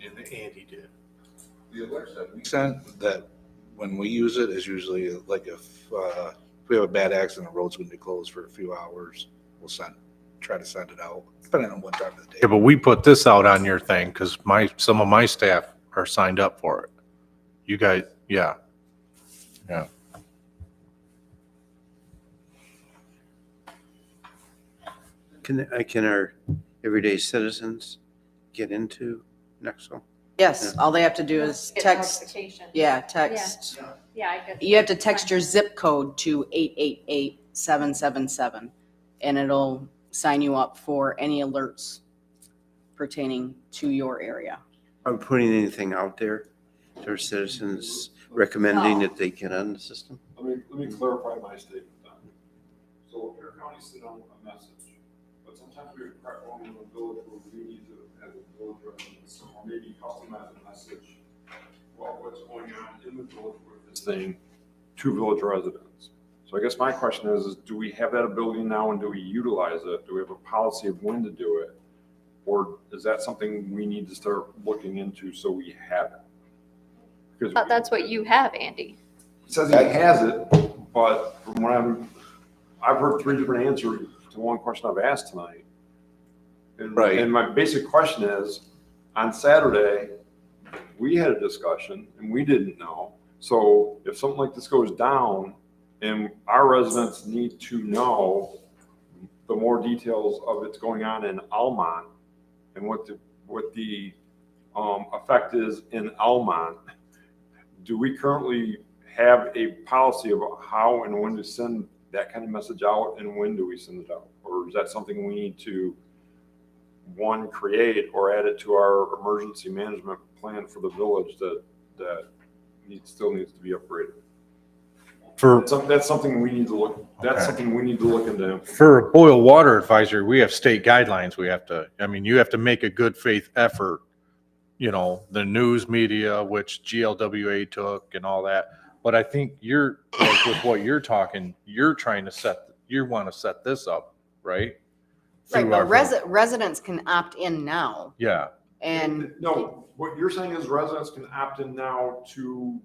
did that Andy did. The alerts that we sent that when we use it is usually like if, uh, if we have a bad accident, the road's gonna be closed for a few hours. We'll send, try to send it out, depending on what time of the Yeah, day. but we put this out on your thing because my, some of my staff are signed up for it. You guys, yeah. Yeah. Can, uh, can our everyday citizens get into Nexel? Yes, all they have to do is Get text, notification. yeah, text. Yeah, I get. You have to text your zip code to 888-777, and it'll sign you up for any alerts pertaining to your area. Are we putting anything out there to our citizens recommending that they get on the system? Let me, let me clarify my statement then. So Air County sent out a message, but sometimes we prep on the village where we need to have a village residence, or maybe customize a message. Well, what's going on in the village with this thing to village residents? So I guess my question is, is do we have that ability now and do we utilize it? Do we have a policy of when to do it? Or is that something we need to start looking into so we have it? Because But Uh, we- that's what you have, Andy. it says he has it, but from what I'm, I've heard three different answers to one question I've asked tonight. And- Right. And my basic question is, on Saturday, we had a discussion and we didn't know. So if something like this goes down and our residents need to know the more details of it's going on in Almont and what the, what the, um, effect is in Almont, do we currently have a policy about how and when to send that kind of message out and when do we send it out? Or is that something we need to, one, create or add it to our emergency management plan for the village that, that needs, still needs to be upgraded? For, That's some- That's something we need to look, Okay. that's something we need to look into. for a boil water advisory, we have state guidelines. We have to, I mean, you have to make a good faith effort. You know, the news media, which GLWA took and all that. But I think you're, like with what you're talking, you're trying to set, you want to set this up, right? Right, Through but our- resi- residents can opt in now, Yeah, and No, what you're saying is residents can opt in now to,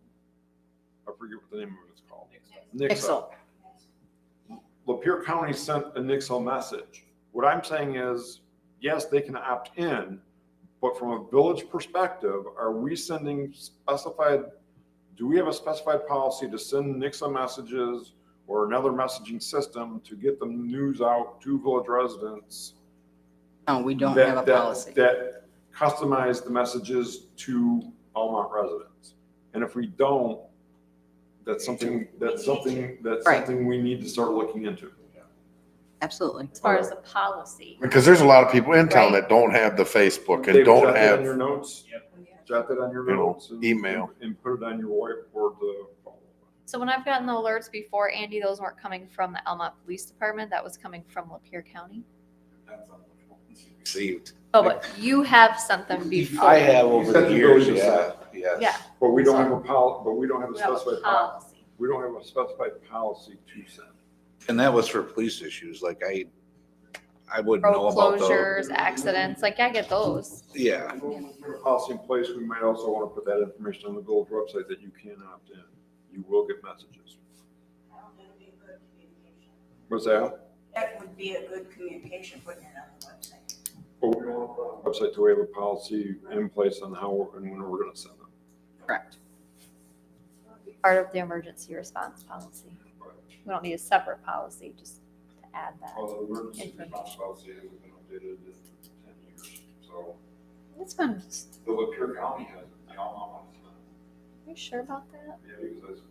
I forget what the name of it's called. Excel. Lapeer County sent a Nixle message. What I'm saying is, yes, they can opt in, but from a village perspective, are we sending specified, do we have a specified policy to send Nixle messages or another messaging system to get the news out to village residents? No, we don't that- have a that- policy. That customize the messages to Almont residents. And if we don't, that's something, that's something, that's Right. something we need to start looking into. Absolutely. As far as the policy. Because there's a lot of people in town Right. that don't have the Facebook Dave, and jot don't that on Your have, notes, jot that on your You know, notes. and- email. And put it on your uh, whiteboard to follow. So when I've gotten the alerts before, Andy, those weren't coming from the Elmont Police Department. That was coming from Lapeer County. Received. Oh, but you have sent them before. I have over the Oh, years, yeah, yes. Yeah. But we don't have a pol, but we don't have a We have a specified, pol- policy. we don't have a specified policy to send. And that was for police issues, like I, I wouldn't know Road about the, closures, accidents, like I get those. yeah. If we put a Policy in place, we might also want to put that information on the village website that you can opt in. You will get messages. What's that? That would be a good communication, putting it on the website. But we don't want to put on the website, do we have a policy in place on how and when we're going to send them? Correct. Part of the emergency response policy. We don't need a separate policy, just to add that. Well, the emergency Information. response policy hasn't been updated in ten years, so It's fun. the Lapeer County has, it. the Alma has, it. Are you sure about that? yeah, because I just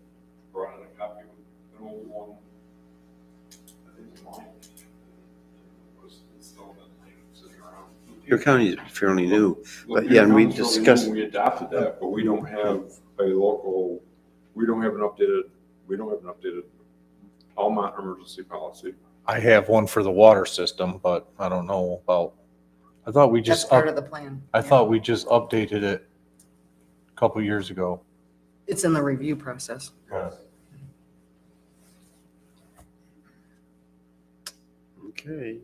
brought in a copy of an old one. I think it's mine. It Was installed in, sitting around. Your county is fairly new. Lapeer yeah, and we County's really new, discussed- We adopted that, but we don't have a local, we don't have an updated, we don't have an updated Alma emergency policy. I have one for the water system, but I don't know about, I thought we That's just, part up- of the plan. I Yeah. thought we just updated it a couple years ago. It's in the review process. Okay.